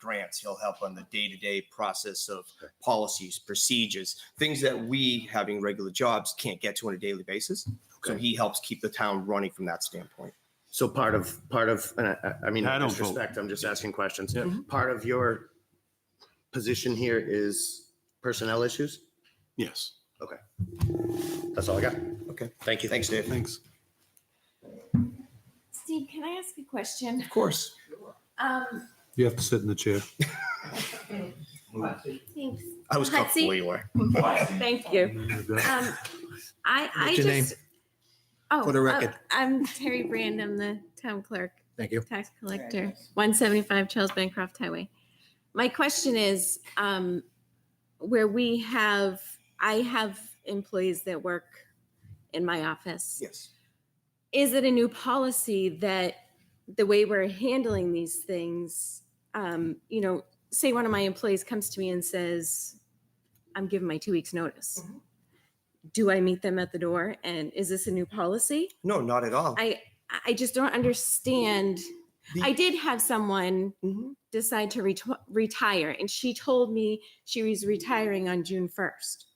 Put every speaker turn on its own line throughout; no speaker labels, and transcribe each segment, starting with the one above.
grants. He'll help on the day to day process of policies, procedures, things that we, having regular jobs, can't get to on a daily basis. So
Okay.
he helps keep the town running from that standpoint.
So part of, part of, and I, I- I mean,
I
no
don't vote.
disrespect, I'm just asking questions. Part of your position here is personnel issues?
Yes.
Okay. That's all I got.
Okay.
Thank you.
Thanks, Dave.
Thanks.
Steve, can I ask a question?
Of course.
Um,
You have to sit in the chair.
thanks.
I was comfortable
Patsy?
you were.
Thank you. Um, I, I
What's your name?
just. Oh,
For the
uh,
record.
I'm Terry Brand. I'm the town clerk,
Thank you.
tax collector, one seventy-five Charles Bancroft Highway. My question is, um, where we have, I have employees that work in my office.
Yes.
is it a new policy that the way we're handling these things, um, you know, say one of my employees comes to me and says, I'm giving my two weeks notice. Do I meet them at the door? And is this a new policy?
No, not at all.
I, I just don't understand.
The-
I did have someone
Mhm.
decide to ret- retire and she told me she was retiring on June 1st.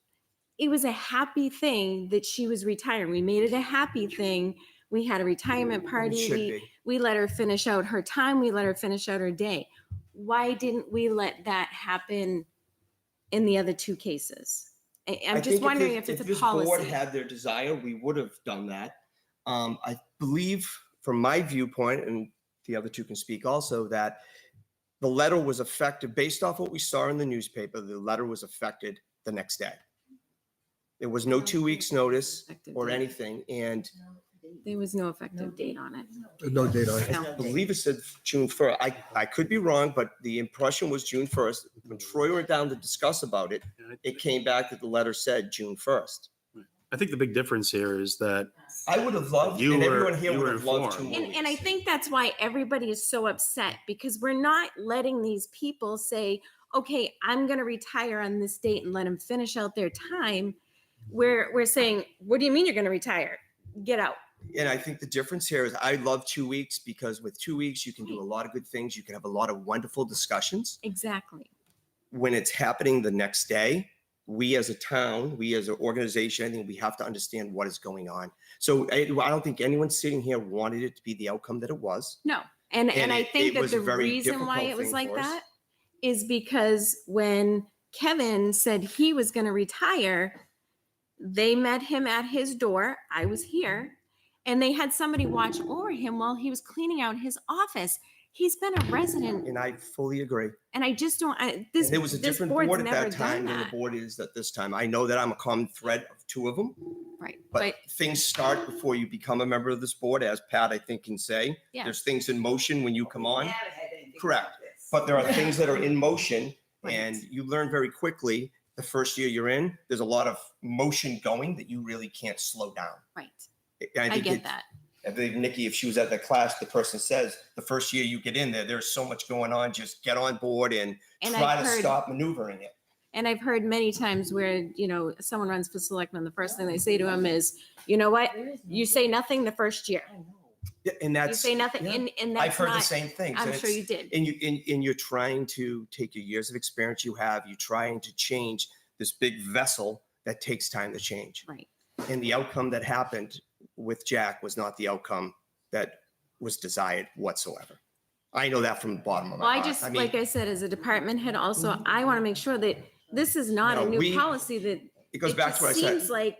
It was a happy thing that she was retiring. We made it a happy thing. We had a retirement
It
party.
should
We,
be.
we let her finish out her time. We let her finish out her day. Why didn't we let that happen in the other two cases? I,
I
I'm
think
just wondering
this-
if it's a
this board
policy.
had their desire, we would have done that. Um, I believe, from my viewpoint, and the other two can speak also, that the letter was affected based off what we saw in the newspaper. The letter was affected the next day. There was
Oh,
no two weeks' notice
Effective
or
date.
anything, and
There was no effective date on it.
No date on it.
I believe it said June first. I, I could be wrong, but the impression was June first. When Troy went down to discuss about it, it came back that the letter said June first.
I think the big difference here is that
I would have loved,
You
and
were-
everyone here
you
would
were
have loved two
informed.
more
And, and I
weeks.
think that's why everybody is so upset because we're not letting these people say, okay, I'm going to retire on this date and let them finish out their time. We're, we're saying, what do you mean you're going to retire? Get out.
And I think the difference here is I love two weeks because with two weeks, you can do a lot of good things. You can have a lot of wonderful discussions.
Exactly.
When it's happening the next day, we as a town, we as an organization, I think we have to understand what is going on. So I, I don't think anyone sitting here wanted it to be the outcome that it was.
No. And,
And
and I
it- it
think that
was a
the
very
reason why
difficult
it was
thing
like
for us.
that is because when Kevin said he was going to retire, they met him at his door. I was here. And they had somebody watch over him while he was cleaning out his office. He's been a resident
And I fully agree.
And I just don't, I,
And
this,
There was a
this
different
board's
board at
never
that
done
time than the
that.
board is at this time. I know that I'm a common thread of two of them.
Right,
But
but
things start before you become a member of this board, as Pat, I think, can say.
Yeah.
There's things in motion when you come on, Correct. but there are things that are in motion and you learn very quickly. The first year you're in, there's a lot of motion going that you really can't slow down.
right,
And
I
think
get
it-
that.
I believe Nikki, if she was at the class, the person says, the first year you get in there, there's so much going on, just get on board and
And
try
I've
to
heard,
stop maneuvering it.
and I've heard many times where, you know, someone runs for selectman, the first thing they say to him is, you know what? You say nothing the first year.
Yeah, And
You
that's,
say nothing,
yeah.
and, and
I've
that's
heard the
not,
same things.
I'm
and
sure
it's-
you did.
and you and, and you're trying to take your years of experience you have you're trying to change this big vessel that takes time to change
Right.
and the outcome that happened with jack was not the outcome that was desired whatsoever i know that from the bottom of my
Well, I
heart
just,
mean, Mm-hmm.
like I said, as a department head also, I want to make sure that this is not
No,
a
we-
new policy that.
it goes back
just
to what i said
Seems like,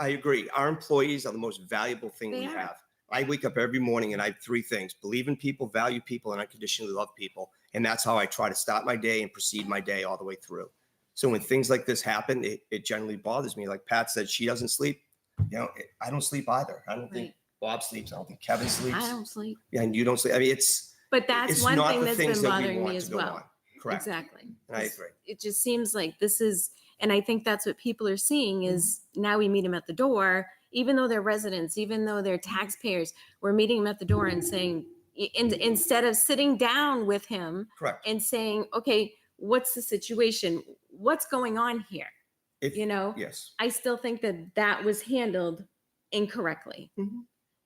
i agree our employees are the most valuable thing
They
we
are.
have i wake up every morning and i have three things believe in people value people and unconditionally love people and that's how i try to start my day and proceed my day all the way through So when things like this happen, it, it generally bothers me. Like Pat said, she doesn't sleep. You know, it, I don't sleep either. I don't think
right,
Bob sleeps. I don't think Kevin sleeps.
I don't sleep,
and you don't sleep. I mean, it's
but that's
it's
one
not
thing
the
that's
things
been
that we
bothering
want
me
to
as
go
well.
on. Correct.
Exactly.
And I
It's-
agree.
It just seems like this is, and I think that's what people are seeing is now we meet them at the door, even though they're residents, even though they're taxpayers, we're meeting them at the door and saying, in, instead of sitting down with him
Correct.
and saying, okay, what's the situation? What's going on here?
If-
You know?
Yes.
I still think that that was handled incorrectly.
Mhm.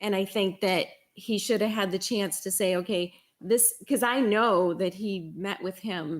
And I think that he should have had the chance to say, okay, this, because I know that he met with him